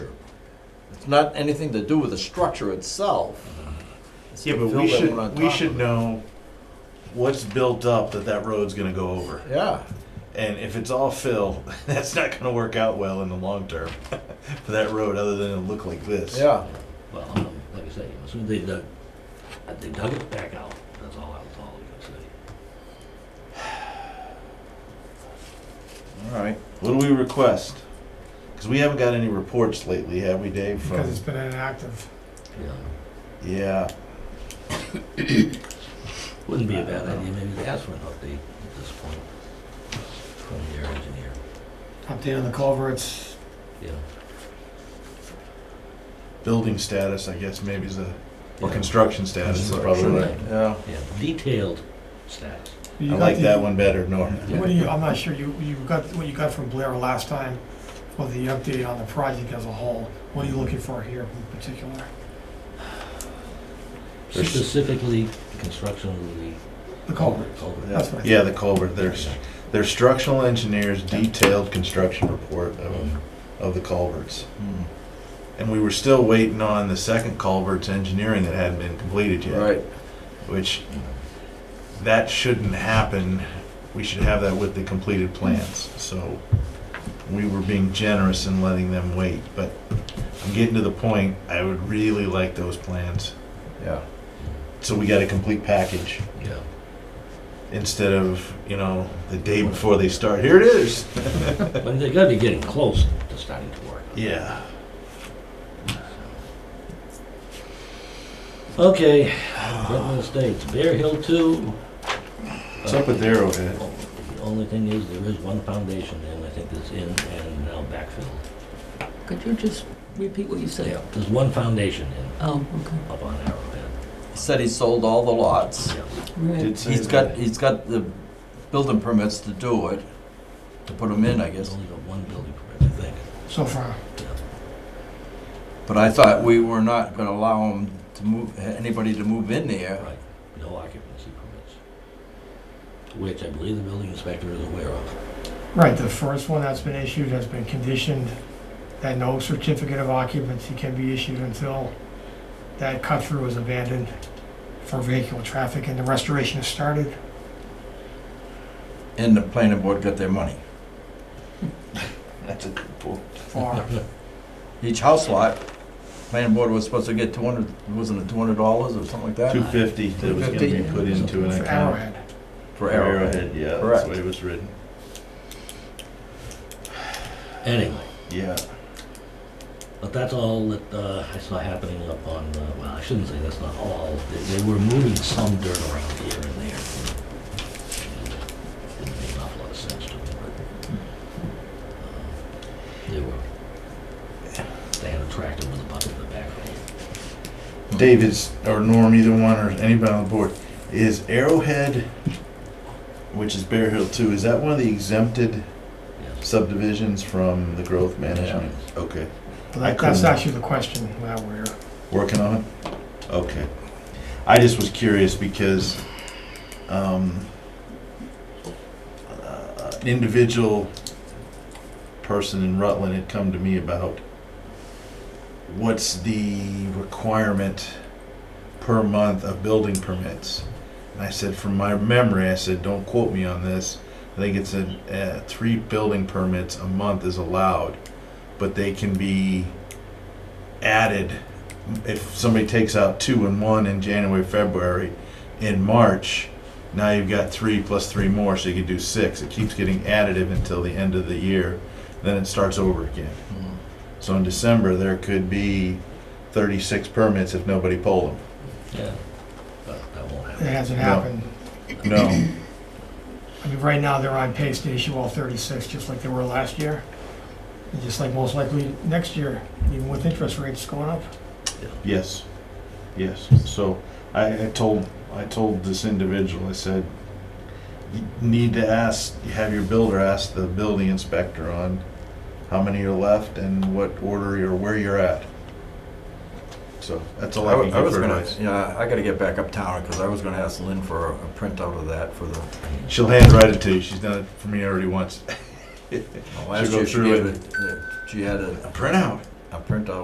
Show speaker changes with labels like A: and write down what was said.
A: It's not anything to do with the structure itself. It's
B: Yeah,
A: the
B: but
A: fill
B: we
A: that
B: should,
A: went on
B: we
A: top
B: should
A: of it.
B: know what's built up that that road's gonna go over.
A: Yeah,
B: And if it's all fill, that's not gonna work out well in the long term for that road, other than it'll look like this.
A: yeah.
C: Well, um, like I say, as soon as they dug, uh, they dug it back out, that's all, that's all I was gonna say.
A: All right.
B: What do we request? Because we haven't got any reports lately, have we, Dave? From
D: because it's been inactive.
C: Yeah.
B: yeah,
C: Wouldn't be a bad idea, maybe to ask for an update at this point from their engineer,
D: Update on the culverts,
C: yeah.
B: building status, I guess maybe is a or
C: Yeah.
B: construction status is probably
C: Construction.
B: right.
A: Yeah.
C: Yeah, detailed status.
D: You
B: I
D: got
B: like
D: the-
B: that one better, Norm.
D: What do you, I'm not sure, you, you got, what you got from Blair last time, or the update on the project as a whole, what are you looking for here in particular?
B: There's-
C: Specifically, the construction of the
D: The culvert,
C: culvert. culvert.
D: that's what I
B: Yeah, the culvert. There's their structural engineers detailed construction report of of the culverts.
A: Hmm.
B: And we were still waiting on the second culvert's engineering that hadn't been completed yet.
A: Right.
B: Which, that shouldn't happen. We should have that with the completed plans. So we were being generous in letting them wait. But I'm getting to the point, I would really like those plans.
A: Yeah.
B: So we got a complete package
C: Yeah.
B: instead of, you know, the day before they start, here it is.
C: But they gotta be getting close to starting to work.
B: Yeah.
C: Okay, Bretton Estates, Bear Hill Two.
B: What's up with Arrowhead?
C: The only thing is, there is one foundation in, I think that's in and now backfilled.
E: Could you just repeat what you said?
C: There's one foundation in,
E: Oh, okay.
C: up on Arrowhead.
A: He said he sold all the lots.
C: Yeah.
E: Right.
B: Did say
A: He's
B: that.
A: got, he's got the building permits to do it, to put them in, I
C: There's
A: guess.
C: only got one building permit, I think.
D: So far,
A: But I thought we were not gonna allow him to move, anybody to move in there.
C: Right, no occupancy permits, which I believe the building inspector is aware of.
D: right, the first one that's been issued has been conditioned that no certificate of occupancy can be issued until that cut-through is abandoned for vehicular traffic and the restoration is started.
A: And the planning board got their money.
B: That's a good point.
D: For
A: Each house lot, planning board was supposed to get two hundred, wasn't it two hundred dollars or something like that?
B: Two fifty that was gonna be
A: 250.
B: put into an
D: for
B: account.
D: Arrowhead.
A: For Arrowhead.
B: yeah, that's
A: Correct.
B: the way it was written.
C: Anyway,
B: Yeah.
C: but that's all that uh, I saw happening up on, uh, well, I shouldn't say that's not all. They they were moving some dirt around here and there. Didn't make an awful lot of sense to me, but uh, they were, they had a tractor with a bucket in the back of it.
B: David's or Norm, either one or anybody on the board, is Arrowhead, which is Bear Hill Two, is that one of the exempted
C: Yes.
B: subdivisions from the growth management? Okay,
D: But
B: I
D: that- That's
B: couldn't-
D: actually the question now we're here.
B: working on it. Okay, I just was curious because um, uh, an individual person in Rutland had come to me about what's the requirement per month of building permits. And I said, from my memory, I said, don't quote me on this. I think it's a uh, three building permits a month is allowed, but they can be added if somebody takes out two and one in January, February, in March. Now you've got three plus three more, so you could do six. It keeps getting additive until the end of the year, then it starts over again.
A: Hmm.
B: So in December, there could be 36 permits if nobody pulled
C: Yeah, but that won't
D: It
C: happen.
D: hasn't
B: No.
D: happened.
B: them. No.
D: I mean, right now, they're on pace to issue all 36, just like they were last year. And just like most likely next year, even with interest rates going up.
B: Yes. Yes. So I, I told I told this individual. I said, you need to ask, have your builder ask the building inspector on how many are left and what order you're where you're at. So that's all I,
A: I wa-
B: can
A: I
B: give
A: was
B: her
A: gonna,
B: advice.
A: yeah, I gotta get back uptown, because I was gonna ask Lynn for a a printout of that for the,
B: She'll handwrite it to you. She's done it for me already once.
A: last
B: go
A: year she
B: through
A: gave
B: it.
A: it, uh, she had a
B: A printout.
A: a printout